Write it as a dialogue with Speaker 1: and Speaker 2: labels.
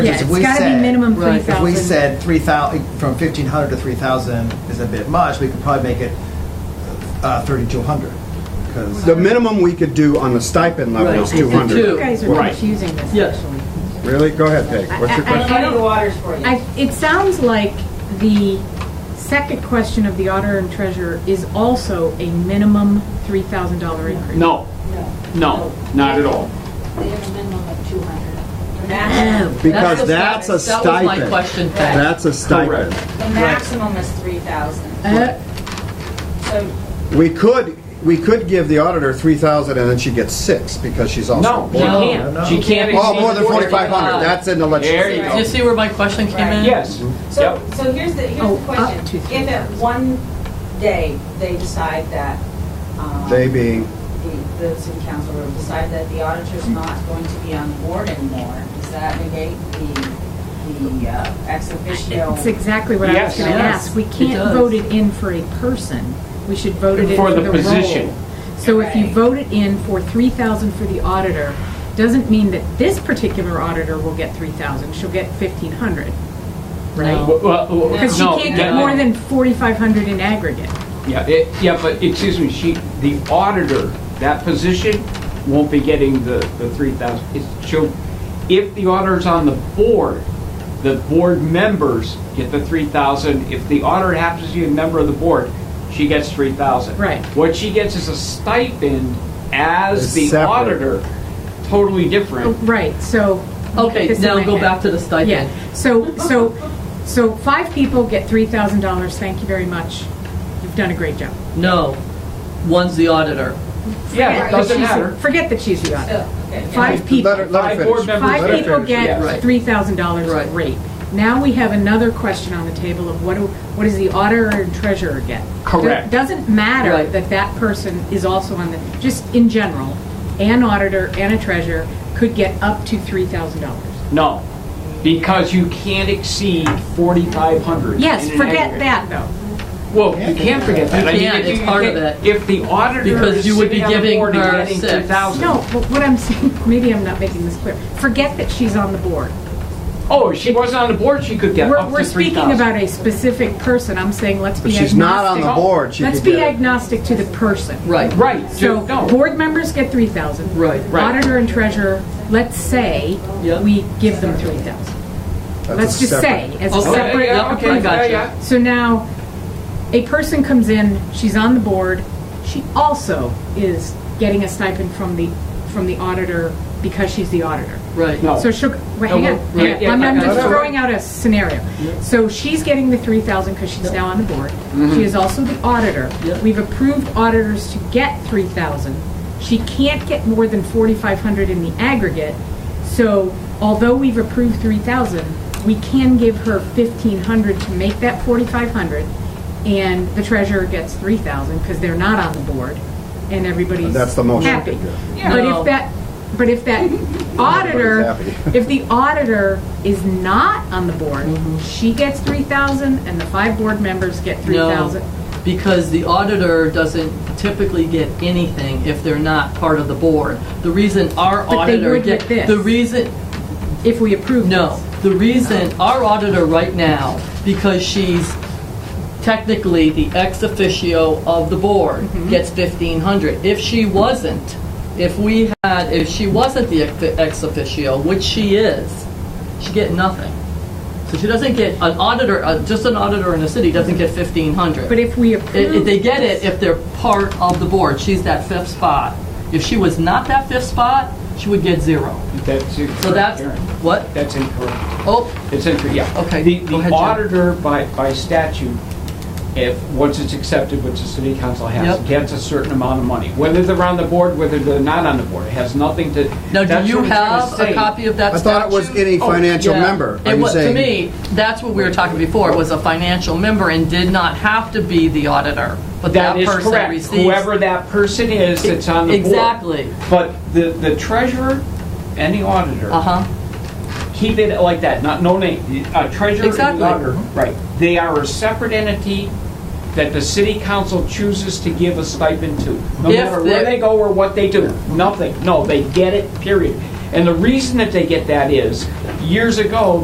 Speaker 1: Yeah,
Speaker 2: Because if
Speaker 1: it's
Speaker 2: we
Speaker 1: gotta be
Speaker 2: said-
Speaker 1: minimum
Speaker 2: Right. If we
Speaker 1: 3,000.
Speaker 2: said 3,000, from 1,500 to 3,000 is a bit much, we could probably make it uh, 3,200. 'cause-
Speaker 3: The minimum we could do on the stipend level is
Speaker 4: Right.
Speaker 1: You
Speaker 3: 200.
Speaker 1: guys are
Speaker 4: Right.
Speaker 1: confusing this,
Speaker 4: Yes.
Speaker 1: actually.
Speaker 3: Really? Go ahead, Peg. What's your
Speaker 1: I- I-
Speaker 3: question?
Speaker 5: Muddy the waters for you.
Speaker 1: I, it sounds like the second question of the auditor and treasurer is also a minimum three thousand dollar increase.
Speaker 4: No, no,
Speaker 5: No.
Speaker 4: not at all.
Speaker 5: They have a minimum of 200.
Speaker 6: That's
Speaker 5: Max-
Speaker 3: Because that's a
Speaker 6: That was my
Speaker 3: stipend.
Speaker 6: question, Pat.
Speaker 3: That's a stipend.
Speaker 5: The maximum is 3,000.
Speaker 1: Uh,
Speaker 5: So
Speaker 3: We could, we could give the auditor 3,000 and then she gets six because she's
Speaker 4: No,
Speaker 3: also.
Speaker 4: she
Speaker 3: board.
Speaker 6: No.
Speaker 2: no.
Speaker 4: can't. She can't.
Speaker 3: Oh, more than
Speaker 4: exceed
Speaker 3: 4,500. That's in the
Speaker 4: There you
Speaker 3: legislation.
Speaker 4: go.
Speaker 6: Do you see where my question came in?
Speaker 4: Yes.
Speaker 5: So,
Speaker 4: Yep.
Speaker 5: so here's the,
Speaker 1: Oh,
Speaker 5: here's the
Speaker 1: up
Speaker 5: question.
Speaker 1: to
Speaker 5: If at
Speaker 1: 3,000.
Speaker 5: one day they decide that, um,
Speaker 3: They
Speaker 5: the,
Speaker 3: being,
Speaker 5: the city council will decide that the auditor's not going to be on the board anymore, does that negate the, the uh, ex officio?
Speaker 1: It's exactly what I was
Speaker 4: Yes.
Speaker 1: gonna
Speaker 6: Yes,
Speaker 1: ask. We
Speaker 6: it
Speaker 1: can't
Speaker 6: does.
Speaker 1: vote it in for a person. We should vote it in
Speaker 4: For
Speaker 1: for
Speaker 4: the
Speaker 1: the
Speaker 4: position.
Speaker 1: role. So if you
Speaker 5: Right.
Speaker 1: vote it in for three thousand for the auditor, doesn't mean that this particular auditor will get three thousand. She'll get fifteen hundred, right?
Speaker 4: Well, well, well,
Speaker 1: Because she
Speaker 4: no,
Speaker 1: can't get
Speaker 4: that-
Speaker 1: more than forty-five hundred in aggregate.
Speaker 4: Yeah, it, yeah, but excuse me, she, the auditor, that position won't be getting the, the three thousand. It's, she'll, if the auditor's on the board, the board members get the three thousand. If the auditor happens to be a member of the board, she gets three thousand.
Speaker 1: Right.
Speaker 4: What she gets is a stipend as
Speaker 3: It's
Speaker 4: the
Speaker 3: separate.
Speaker 4: auditor, totally
Speaker 1: Oh,
Speaker 4: different.
Speaker 1: Right, so.
Speaker 6: Okay,
Speaker 1: This is
Speaker 6: now
Speaker 1: my
Speaker 6: go
Speaker 1: head.
Speaker 6: back to the
Speaker 1: Yeah,
Speaker 6: stipend.
Speaker 1: so, so, so five people get three thousand dollars, thank you very much, you've done a great job.
Speaker 6: No, one's the auditor.
Speaker 4: Yeah, it
Speaker 1: Forget that
Speaker 4: doesn't
Speaker 1: she's-
Speaker 4: matter.
Speaker 1: Forget that she's the auditor.
Speaker 5: So, Oh, okay, yeah.
Speaker 1: Five people,
Speaker 3: let her, let her
Speaker 4: Five
Speaker 3: finish.
Speaker 4: board members.
Speaker 3: Let her
Speaker 1: five people
Speaker 3: finish.
Speaker 6: yeah.
Speaker 1: get
Speaker 6: Right.
Speaker 1: three thousand dollars
Speaker 6: Right.
Speaker 1: rate. Now we have another question on the table of what do, what does the auditor and treasurer get?
Speaker 4: Correct.
Speaker 1: Do- Doesn't matter
Speaker 6: Right.
Speaker 1: that that person is also on the, just in general, an auditor and a treasurer could get up to three thousand dollars.
Speaker 4: No, because you can't exceed forty-five hundred.
Speaker 1: Yes, forget that though.
Speaker 4: Well, you can't forget that.
Speaker 6: You
Speaker 4: I mean,
Speaker 6: can't.
Speaker 4: if you-
Speaker 6: It's part of it.
Speaker 4: If the auditor
Speaker 6: Because
Speaker 4: is
Speaker 6: you would be
Speaker 4: sitting on the
Speaker 6: giving
Speaker 4: board and
Speaker 6: her
Speaker 4: getting
Speaker 6: six.
Speaker 4: 2,000.
Speaker 1: No, but what I'm saying, maybe I'm not making this clear. Forget that she's on the board.
Speaker 4: Oh, if she wasn't on the board, she could get
Speaker 1: We're,
Speaker 4: up to
Speaker 1: we're
Speaker 4: three
Speaker 1: speaking
Speaker 4: thousand.
Speaker 1: about a specific person. I'm saying let's
Speaker 3: But
Speaker 1: be
Speaker 3: she's not on the
Speaker 1: agnostic.
Speaker 3: board. She
Speaker 1: Let's
Speaker 3: could get
Speaker 1: be
Speaker 3: it.
Speaker 1: agnostic to the person.
Speaker 6: Right.
Speaker 4: Right,
Speaker 1: So
Speaker 4: ju- no.
Speaker 1: board members get three thousand.
Speaker 6: Right.
Speaker 4: Right.
Speaker 1: Auditor and treasurer, let's say
Speaker 6: Yeah.
Speaker 1: we give them three thousand.
Speaker 3: That's a
Speaker 1: Let's just
Speaker 3: separate-
Speaker 1: say as a
Speaker 6: Okay,
Speaker 1: separate.
Speaker 4: yeah,
Speaker 6: yeah,
Speaker 4: okay,
Speaker 6: I
Speaker 4: yeah,
Speaker 6: gotcha.
Speaker 4: yeah.
Speaker 1: So now, a person comes in, she's on the board, she also is getting a stipend from the, from the auditor because she's the auditor.
Speaker 6: Right.
Speaker 4: No.
Speaker 1: So she'll, wait, hang
Speaker 4: No,
Speaker 1: on,
Speaker 4: we're-
Speaker 1: hang
Speaker 4: yeah,
Speaker 1: on. I'm,
Speaker 4: yeah,
Speaker 1: I'm
Speaker 4: yeah,
Speaker 1: just
Speaker 4: yeah.
Speaker 1: throwing out a scenario. So she's getting the three thousand because she's now on the board.
Speaker 4: Mm-hmm.
Speaker 1: She is also the auditor.
Speaker 6: Yeah.
Speaker 1: We've approved auditors to get three thousand. She can't get more than forty-five hundred in the aggregate. So although we've approved three thousand, we can give her fifteen hundred to make that forty-five hundred. And the treasurer gets three thousand because they're not on the board and everybody's
Speaker 3: That's the motion.
Speaker 1: happy.
Speaker 6: Yeah.
Speaker 1: But
Speaker 6: No.
Speaker 1: if that, but if that auditor,
Speaker 3: Everybody's happy.
Speaker 1: if the auditor is not on the board,
Speaker 6: Mm-hmm.
Speaker 1: she gets three thousand and the five board members get three thousand.
Speaker 6: No, because the auditor doesn't typically get anything if they're not part of the board. The reason our
Speaker 1: But they
Speaker 6: auditor
Speaker 1: would
Speaker 6: get
Speaker 1: with this.
Speaker 6: the reason
Speaker 1: If we approve
Speaker 6: no,
Speaker 1: this.
Speaker 6: the reason our auditor right now because she's technically the ex officio of the board gets 1500 if she wasn't if we had if she wasn't the ex- ex officio which she is she get nothing so she doesn't get an auditor uh, just an auditor in the city doesn't get 1500
Speaker 1: But if we
Speaker 6: it, it-
Speaker 1: approve.
Speaker 6: they get it
Speaker 1: this-
Speaker 6: if they're part of the board. She's that fifth spot. If she was not that fifth spot, she would get zero.
Speaker 4: That's incorrect.
Speaker 6: So that's
Speaker 4: Karen.
Speaker 6: what.
Speaker 4: That's incorrect.
Speaker 6: Oh,
Speaker 4: It's incorrect, yeah.
Speaker 6: Okay,
Speaker 4: The,
Speaker 6: go
Speaker 4: the
Speaker 6: ahead, Jim.
Speaker 4: auditor by, by statute, if, once it's accepted, which the city council has,
Speaker 6: Yep.
Speaker 4: gets a certain amount of money. Whether they're on the board, whether they're not on the board, it has nothing to.
Speaker 6: now do
Speaker 4: that's
Speaker 6: you
Speaker 4: what it's gonna
Speaker 6: have a
Speaker 4: say.
Speaker 6: copy of that?
Speaker 3: I thought it was
Speaker 6: statute?
Speaker 3: any
Speaker 4: Oh,
Speaker 3: financial
Speaker 6: Yeah.
Speaker 3: member. Are
Speaker 6: It
Speaker 3: you
Speaker 6: was, to
Speaker 3: saying-
Speaker 6: me, that's what we were talking before. It was a financial member and did not have to be the auditor, but that,
Speaker 4: That is
Speaker 6: person
Speaker 4: correct.
Speaker 6: receives.
Speaker 4: Whoever that person is that's on the board.
Speaker 6: Exactly.
Speaker 4: But the, the treasurer and the auditor.
Speaker 6: Uh huh.
Speaker 4: keep it like that, not, no name, uh, treasurer and
Speaker 6: Exactly.
Speaker 4: auditor. Right. They are a separate entity that the city council chooses to give a stipend to. No
Speaker 6: If
Speaker 4: matter where
Speaker 6: they-
Speaker 4: they go or what they do, nothing, no, they get it, period. And the reason that they get that is, years ago,